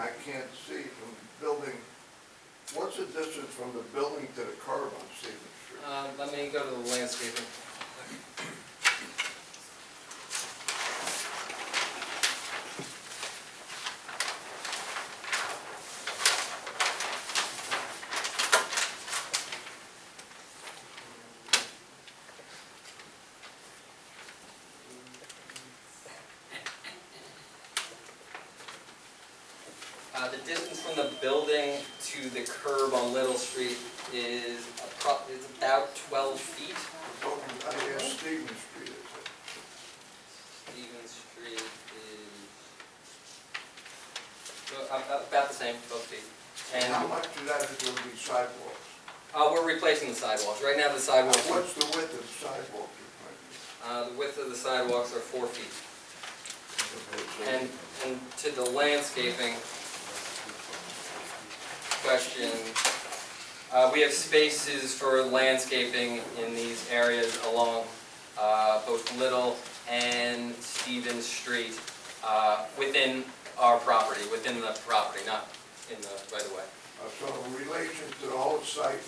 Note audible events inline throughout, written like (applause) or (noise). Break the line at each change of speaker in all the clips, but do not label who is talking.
I can't see from the building, what's the distance from the building to the curb on Stevens Street?
Uh, let me go to the landscaping. Uh, the distance from the building to the curb on Little Street is appro, is about twelve feet.
The building, I asked Stevens Street, is it?
Stevens Street is uh, about, about the same, twelve feet.
And how
And,
much of that is going to be sidewalks?
uh, we're replacing the sidewalks. Right now, the
Uh,
sidewalks,
What's the width of the sidewalk? you're
uh, the width of the sidewalks are four feet.
planning?
And, and to the landscaping question, uh, we have spaces for landscaping in these areas along, uh, both Little and Stevens Street, uh, within our property, within the property, not in the right of way.
Uh, So in relation to the whole site,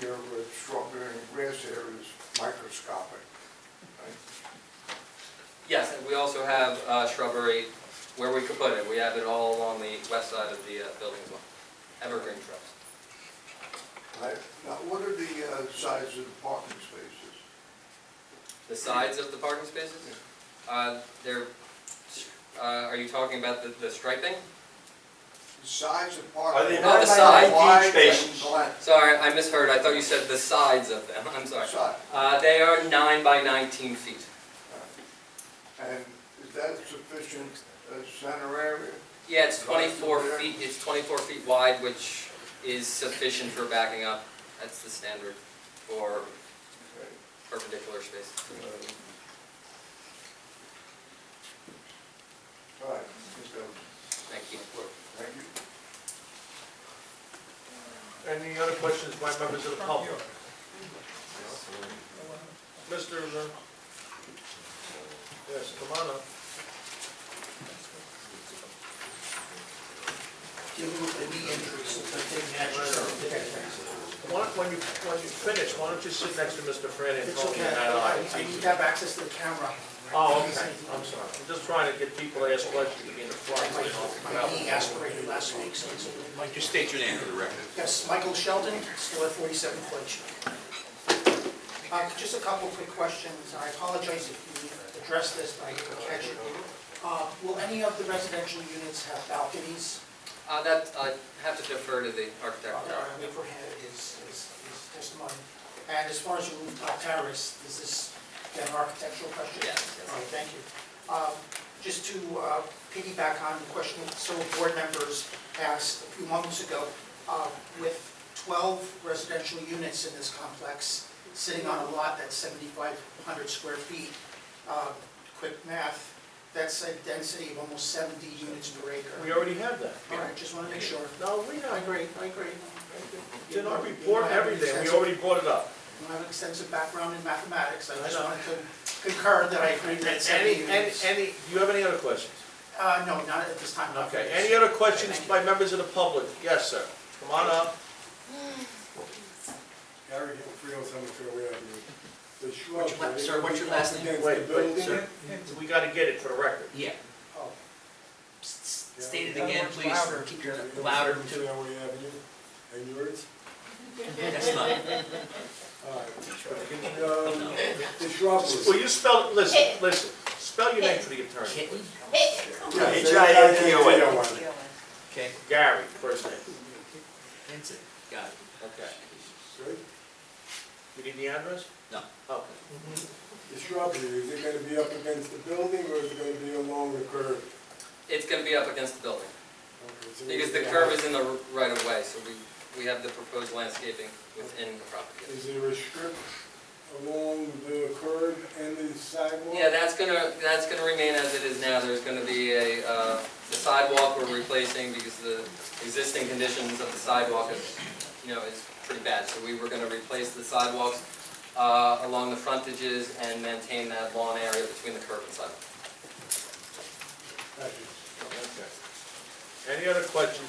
your uh, shrubbery and grass area is microscopic, right?
Yes, and we also have, uh, shrubbery where we could put it. We have it all along the west side of the, uh, building as well. Evergreen shrubs.
Right. Now, what are the uh, size of the parking spaces?
The sides of the parking spaces? Uh, they're, uh, are you talking about the, the striping?
The size of parking?
Are they
not the side?
Wide and
spaces?
blank.
Sorry, I misheard, I thought you said the sides of them, (laughs) I'm sorry.
Side.
Uh, they are nine by nineteen feet.
And is that sufficient uh, center area?
Yeah, it's twenty-four feet, it's twenty-four feet wide, which is sufficient for backing up. That's the standard for perpendicular space.
All right, I think that was
Thank you.
my question. Thank you.
Any other questions by members of the public? Mr. uh, Yes, come on up.
Give them the knee injuries that they naturally.
Why don't- When you, when you finish, why don't you sit next to Mr. Fran
It's
Antoni?
okay,
and
I
I'll-
I need to have access to the camera.
Oh, okay, I'm sorry. I'm just trying to get people to ask questions to be in the front. you know.
My knee aspirated last week, so it's a little might
Just state your name for the record.
Yes, Michael Sheldon, still at 47 Floyd Street. Uh, Just a couple of quick questions. I apologize if you addressed this, but I didn't catch it. Uh, Will any of the residential units have balconies?
Uh, that, I have to defer to the architect.
Whipper is is is testimony. And as far as your rooftop terrace, is this again, an architectural question?
Yes, yes.
All right, thank you. Um, Just to uh, piggyback on the question that several board members asked a few moments ago, uh, with 12 residential units in this complex, sitting on a lot that's 7,500 square feet, uh, quick math, that's a density of almost 70 units per
We
acre.
already have that.
All right, just want to make sure.
No, we
I
have.
agree, I agree.
It's in our report, everything. We already brought it up.
I have an extensive background in mathematics, I
I
just
know.
wanted to concur that I agree that seventy
Any, any,
units.
any, do you have any other questions?
Uh, no, not at this time. not
Okay,
yet.
any other questions by members of the public? Yes, sir. Come on up.
Gary Hill, 307 Fairway Avenue. The shrubs.
What's your la-
are they
sir, what's your
gonna be
last name?
up
Wait,
Against the
wait,
building?
sir. We gotta get it for the record.
Yeah,
Oh,
S- s- state it again, please, keep your louder
307
too.
Fairway Avenue, and yours?
That's not,
All
Oh,
right. Um, The shrubs.
Well, you spell, listen, listen, spell your name for the attorney.
kitten,
H-I-N-T-O-N.
okay,
Gary, first name.
that's it, got it.
Okay. You need the address?
No.
Okay.
The shrubbery, is it going to be up against the building or is it going to be along the curb?
It's gonna be up against the building,
Okay, so
because the curb is in the right of way, so we, we have the proposed landscaping within the property.
Is there a strip along the curb and the sidewalk?
Yeah, that's gonna, that's gonna remain as it is now, there's gonna be a, uh, the sidewalk we're replacing because the existing conditions of the sidewalk is, you know, is pretty bad, so we were gonna replace the sidewalks, uh, along the frontages and maintain that lawn area between the curb and sidewalk.
Thank you.
Okay. Any other questions,